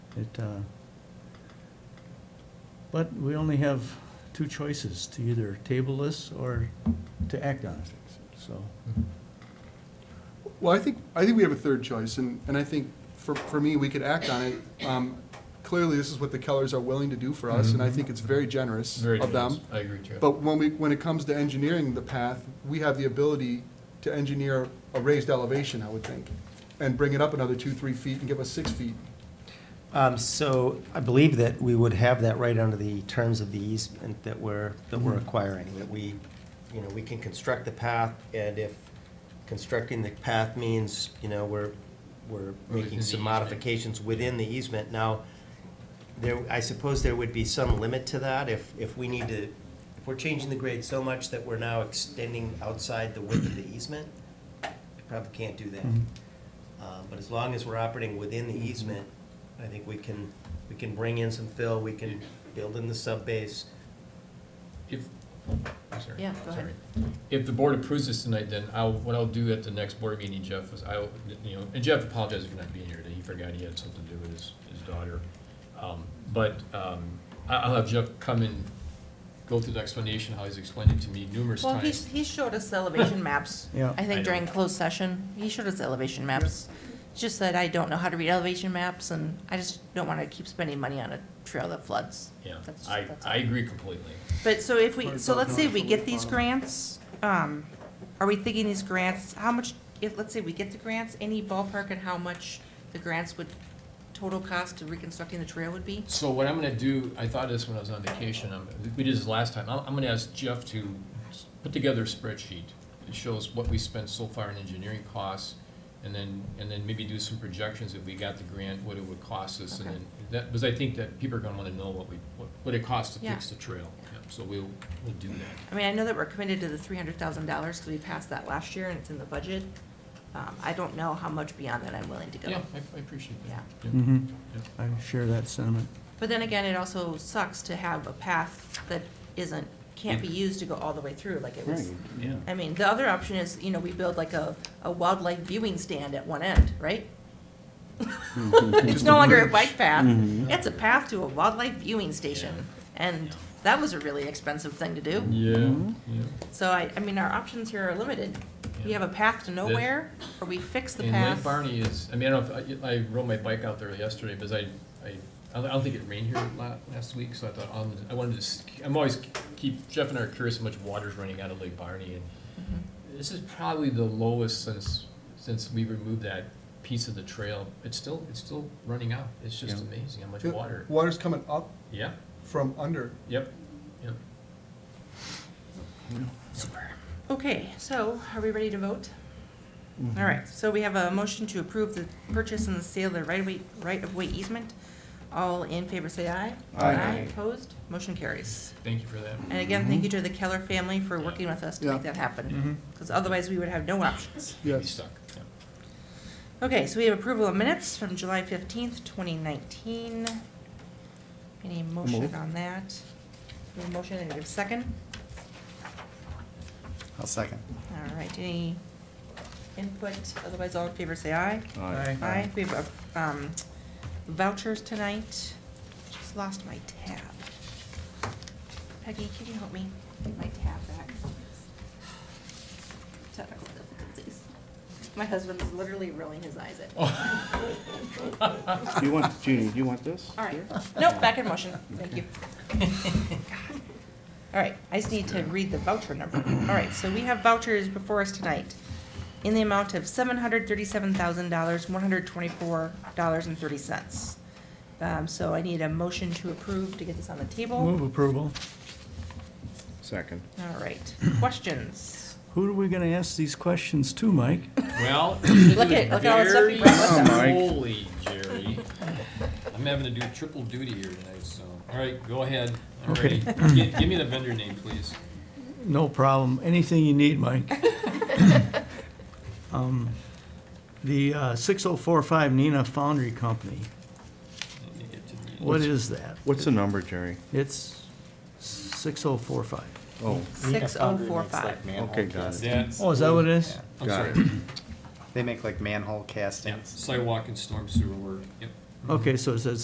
It, uh, but we only have two choices, to either table this or to act on it, so. Well, I think, I think we have a third choice, and, and I think for, for me, we could act on it. Um, Clearly, this is what the Kellers are willing to do for us, and I think it's very generous Mm-hmm. Very of them. generous. I agree, Chad. But when we, when it comes to engineering the path, we have the ability to engineer a raised elevation, I would think, and bring it up another two, three feet and give us six feet. Um, So I believe that we would have that right under the terms of the easement that we're, that we're acquiring, that we, you know, we can construct the path, and if constructing the path means, you know, we're, we're Within making the some easement. modifications within the easement. Now, there, I suppose there would be some limit to that if, if we need to, if we're changing the grade so much that we're now extending outside the width of the easement, we probably can't do that. Mhm. Uh, But as long as we're operating within the easement, I think we can, we can bring in some fill, we can build in the subbase. If, I'm sorry. Yeah, go ahead. Sorry. If the board approves this tonight, then I'll, what I'll do at the next board meeting, Jeff, is I'll, you know, and Jeff apologizes for not being here today. He forgot he had something to do with his, his daughter. Um, But um, I- I'll have Jeff come and go through the explanation, how he's explained it to me numerous Well, times. he, he showed us elevation maps. Yeah. I I know. think during closed session, he showed us elevation maps. Just that I don't know how to read elevation maps and I just don't want to keep spending money on a trail that floods. Yeah, That's- I, that's all. I agree completely. But so if we, so let's say we Horizontal get these bottom. grants, um, are we thinking these grants, how much, if, let's say we get the grants, any ballpark on how much the grants would, total cost to reconstructing the trail would be? So what I'm gonna do, I thought of this when I was on vacation, um, we did this last time, I'm, I'm gonna ask Jeff to s- put together a spreadsheet that shows what we spent so far in engineering costs, and then, and then maybe do some projections if we got the grant, what it would cost us, and Okay. then, that, because I think that people are gonna wanna know what we, what, what it costs to fix Yeah. the trail. Yeah, So we'll, we'll do that. I mean, I know that we're committed to the three hundred thousand dollars, because we passed that last year and it's in the budget. Um, I don't know how much beyond that I'm willing to go. Yeah, I, I appreciate that. Yeah. mhm. I share that sentiment. But then again, it also sucks to have a path that isn't, can't be used to go all the way through, like it was. yeah. I mean, the other option is, you know, we build like a, a wildlife viewing stand at one end, right? It's Just no a longer a bridge. bike path, Mhm. it's a path to a wildlife viewing station. And Yeah. that was a really expensive thing to do. Yeah, yeah. So I, I mean, our options here are limited. We Yeah. have a path to nowhere, or we fix the And Lake path. Barney is, I mean, I don't, know if- I, I rode my bike out there yesterday, because I, I, I don't think it rained here la- last week, so I thought, um, I wanted to, s- I'm always keep, Jeff and I are curious how much water's running out of Lake Barney, and Mm-hmm. this is probably the lowest since, since we removed that piece of the trail, it's still, it's still running out, it's just Yeah. amazing how much water, Water's coming up yeah, from under. yep, yep. Okay, so are we ready to vote? Mm-hmm. All right, so we have a motion to approve the purchase and the sale of the right-of-way, right-of-way easement. All in favor, say aye. Aye. Opposed? Motion carries. Thank you for that. And again, thank you to the Keller family for working with us to Yeah. make that happen, because otherwise we would have no options. We'd be Yes. Stuck, yeah. Okay, so we have approval of minutes from July fifteenth, twenty nineteen. Any motion Move. on that? Any motion, and a second? I'll second. All right, any input? Otherwise, all in favor, say aye. Aye, we have um, vouchers tonight. Just lost my tab. Peggy, can you help me get my tab back? Technical difficulties. My husband's literally rolling his eyes at me. Do you want, Judy, do you want this? All right, nope, back in motion, thank you. All right, I just need to read the voucher number. All right, so we have vouchers before us tonight in the amount of seven hundred thirty-seven thousand dollars, one hundred twenty-four dollars and thirty cents. Um, so I need a motion to approve to get this on the Move table. approval. Second. All right, questions? Who are we gonna ask these questions to, Mike? Well, look Look at- look at all the stuff you brought with Oh, us. Mike. Holy Jerry. I'm having to do triple duty here tonight, so, all right, go ahead. I'm ready. Okay. Gi- Give me the vendor name, please. No problem. Anything you need, Mike. Um, The uh, 6045 Nina Foundry Company, Let me get to the- what is that? What's the number, Jerry? It's 6045. Oh, Six oh four five. okay, got it. That's- Oh, is that what it is? I'm Got sorry. They make like manhole Yeah, castings. Sidewalk and storm sewer work, yep. Okay, so it says